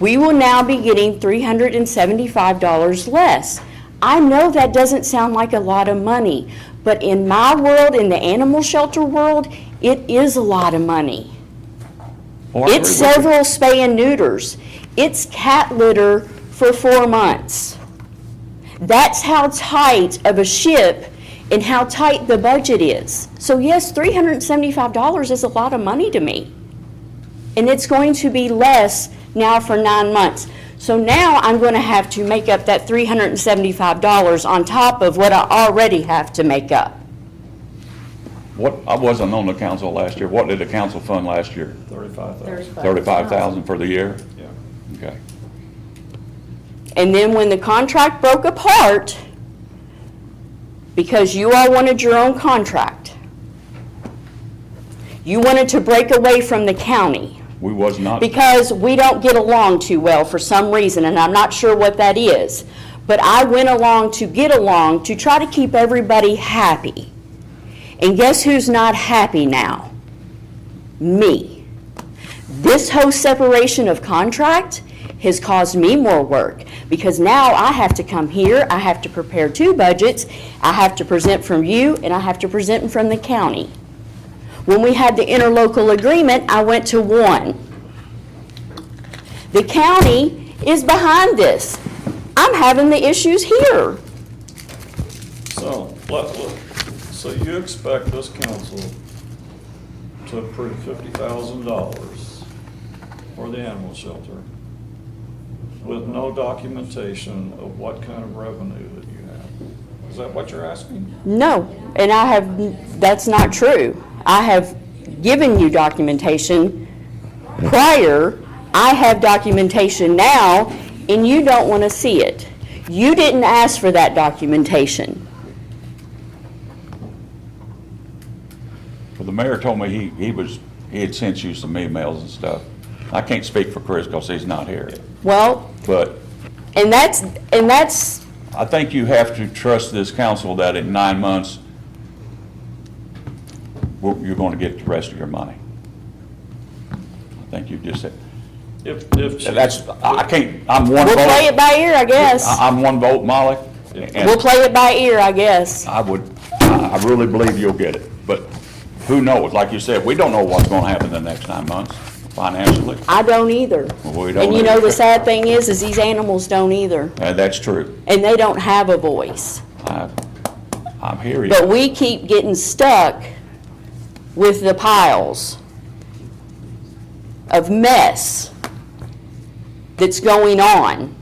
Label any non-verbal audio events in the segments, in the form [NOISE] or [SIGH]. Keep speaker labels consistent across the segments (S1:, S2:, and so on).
S1: we will now be getting $375 less. I know that doesn't sound like a lot of money, but in my world, in the animal shelter world, it is a lot of money.
S2: Oh, I agree
S1: It's
S2: with you.
S1: several spay and neuters. It's cat litter for four months. That's how tight of a ship and how tight the budget is. So yes, $375 is a lot of money to me. And it's going to be less now for nine months. So now I'm going to have to make up that $375 on top of what I already have to make up.
S2: What, I wasn't on the council last year. What did the council fund last year?
S3: Thirty-five thousand.
S2: Thirty-five thousand for the year?
S3: Yeah.
S2: Okay.
S1: And then when the contract broke apart, because you all wanted your own contract, you wanted to break away from the county
S2: We was not,
S1: because we don't get along too well for some reason, and I'm not sure what that is. But I went along to get along to try to keep everybody happy. And guess who's not happy now? Me. This whole separation of contract has caused me more work because now I have to come here, I have to prepare two budgets, I have to present from you, and I have to present from the county. When we had the interlocal agreement, I went to one. The county is behind this. I'm having the issues here.
S3: So, let- let- so you expect this council to approve fifty thousand dollars for the animal shelter with no documentation of what kind of revenue that you have? Is that what you're asking?
S1: No, and I have, that's not true. I have given you documentation prior. I have documentation now, and you don't want to see it. You didn't ask for that documentation.
S2: well, the mayor told me he, he was, he had sent you some emails and stuff. I can't speak for Chris because he's not here.
S1: Well,
S2: But
S1: and that's, and that's,
S2: I think you have to trust this council that in nine months, we're- you're going to get the rest of your money. I think you just said,
S3: If, if. she-
S2: that's, I I can't, I'm one vote.
S1: we'll play it by ear, I guess.
S2: I- I'm one vote, Molly. and-
S1: We'll play it by ear, I guess.
S2: I would, I I really believe you'll get it, but who knows? Like you said, we don't know what's gonna happen in the next nine months financially,
S1: I don't either.
S2: Well, we don't
S1: And you know,
S2: either.
S1: the sad thing is, is these animals don't either,
S2: and that's true.
S1: and they don't have a voice.
S2: I, I'm hearing
S1: But
S2: you.
S1: we keep getting stuck with the piles of mess that's going on.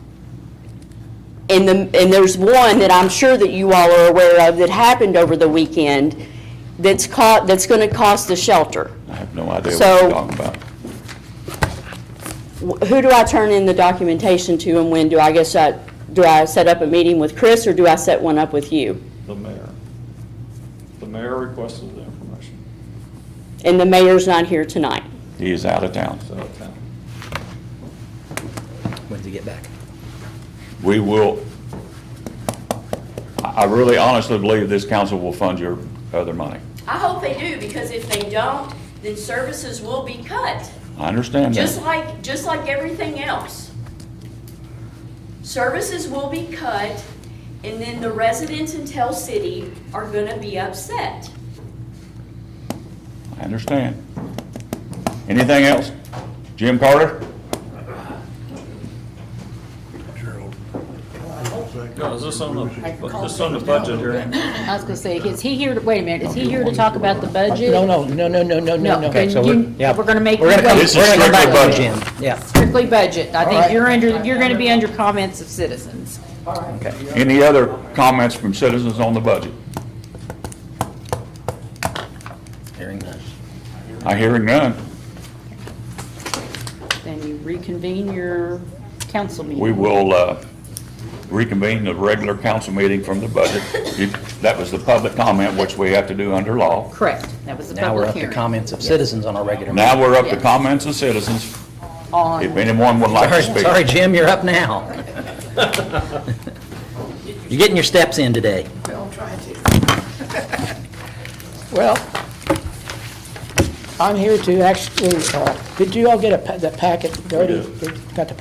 S1: And the, and there's one that I'm sure that you all are aware of that happened over the weekend that's caught, that's gonna cost the shelter.
S2: I have no idea what
S1: So-
S2: you're talking about.
S1: Wh- Who do I turn in the documentation to and when? Do I guess I, do I set up a meeting with Chris or do I set one up with you?
S3: The mayor. The mayor requested the information,
S1: And the mayor's not here tonight.
S2: He is out of town.
S3: so, okay.
S4: When's he get back?
S2: We will, I I really honestly believe this council will fund your other money.
S1: I hope they do, because if they don't, then services will be cut,
S2: I understand
S1: just
S2: that.
S1: like, just like everything else. Services will be cut, and then the residents in Tell City are gonna be upset.
S2: I understand. Anything else? Jim Carter?
S3: No, is this on the, this on the budget here?
S5: I was gonna say, is he here, to wait a minute, is he here to talk about the budget?
S4: No, no, no, no, no, no, no, no.
S5: Okay, so we're,
S4: yeah.
S5: gonna make.
S4: We're
S5: you
S4: gonna come,
S5: wait.
S2: This is
S4: we're gonna
S2: strictly
S4: come back to
S2: budget.
S4: Jim, yeah,
S5: Strictly budget. I
S4: All right.
S5: think you're under, you're gonna be under comments of citizens.
S4: okay.
S2: Any other comments from citizens on the budget?
S4: Hearing none.
S2: I hear none.
S5: Then you reconvene your council meeting.
S2: We will uh, reconvene the regular council meeting from the budget. You- That was the public comment, which we have to do under law.
S5: Correct, that was the
S4: Now we're
S5: public
S4: up to
S5: hearing.
S4: comments of citizens on our regular.
S2: Now we're up to comments of citizens.
S5: On-
S2: If anyone would like to
S4: Sorry, sorry,
S2: speak.
S4: Jim, you're up now.
S2: [LAUGHS]
S4: You're getting your steps in today.
S6: Well, I'm here to actually, uh, did you all get a pa- the packet, already? Got the